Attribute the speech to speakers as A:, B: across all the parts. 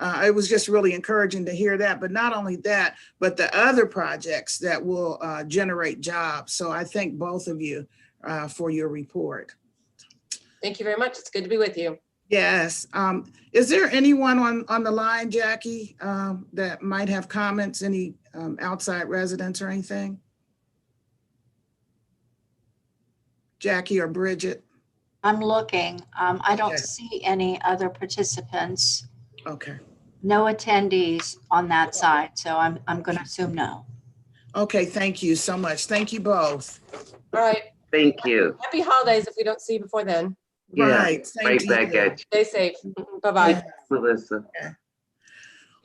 A: Uh, it was just really encouraging to hear that, but not only that, but the other projects that will, uh, generate jobs. So I thank both of you, uh, for your report.
B: Thank you very much. It's good to be with you.
A: Yes, um, is there anyone on, on the line, Jackie, um, that might have comments, any, um, outside residents or anything? Jackie or Bridget?
C: I'm looking. Um, I
A: Okay.
C: don't see any other participants,
A: Okay,
C: no attendees on that side, so I'm, I'm going to assume no.
A: okay, thank you so much. Thank you both.
B: All right.
D: Thank you.
B: Happy holidays if we don't see you before then.
D: Yeah,
A: Right. same
D: Right
A: to
D: back
A: you.
D: at you,
B: Stay safe. Bye-bye.
D: Melissa.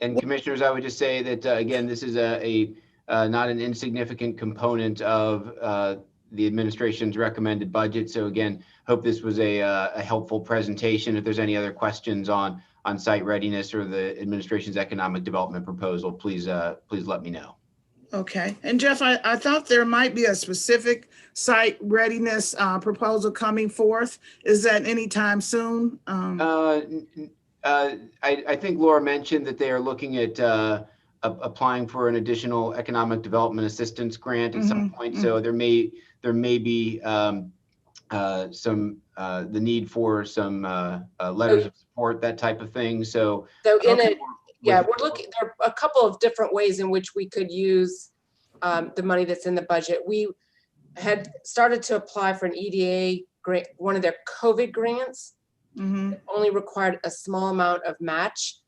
E: And commissioners, I would just say that, uh, again, this is a, a, uh, not an insignificant component of, uh, the administration's recommended budget. So again, hope this was a, uh, a helpful presentation. If there's any other questions on, on site readiness or the administration's economic development proposal, please, uh, please let me know.
A: Okay, and Jeff, I, I thought there might be a specific site readiness uh, proposal coming forth. Is that anytime soon? Um,
E: Uh, n- n- uh, I, I think Laura mentioned that they are looking at uh, a- applying for an additional economic development assistance grant at some point. So there may, there may be um, uh, some, uh, the need for some uh, uh, letters of support, that type of thing. So.
B: So in
E: Okay.
B: a, yeah, we're looking, there are a couple of different ways in which we could use um, the money that's in the budget. We had started to apply for an EDA grant, one of their COVID grants,
A: mhm,
B: only required a small amount of match.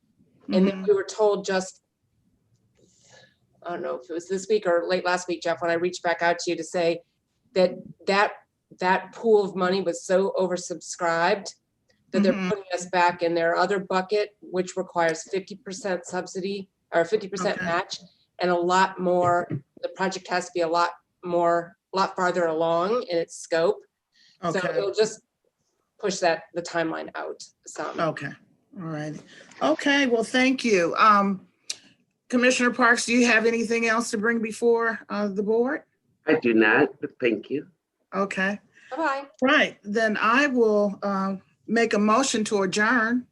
B: And then
A: mhm.
B: we were told just, I don't know if it was this week or late last week, Jeff, when I reached back out to you to say that that, that pool of money was so oversubscribed that they're
A: Mhm.
B: putting us back in their other bucket, which requires fifty percent subsidy or fifty percent
A: Okay.
B: match and a lot more, the project has to be a lot more, a lot farther along in its scope. So
A: Okay,
B: it'll just push that, the timeline out some.
A: okay, all right. Okay, well, thank you. Um, Commissioner Parks, do you have anything else to bring before uh, the board?
D: I do not, but thank you.
A: Okay,
B: Bye-bye.
A: right, then I will um, make a motion to adjourn.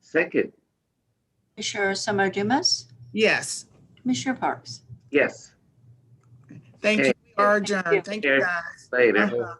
D: Second,
C: Commissioner Summer Dumas,
A: Yes,
C: Commissioner Parks.
D: yes,
A: thank you. We are adjourned. Thank you,
D: Okay.
A: guys.
D: later.
A: Uh-huh.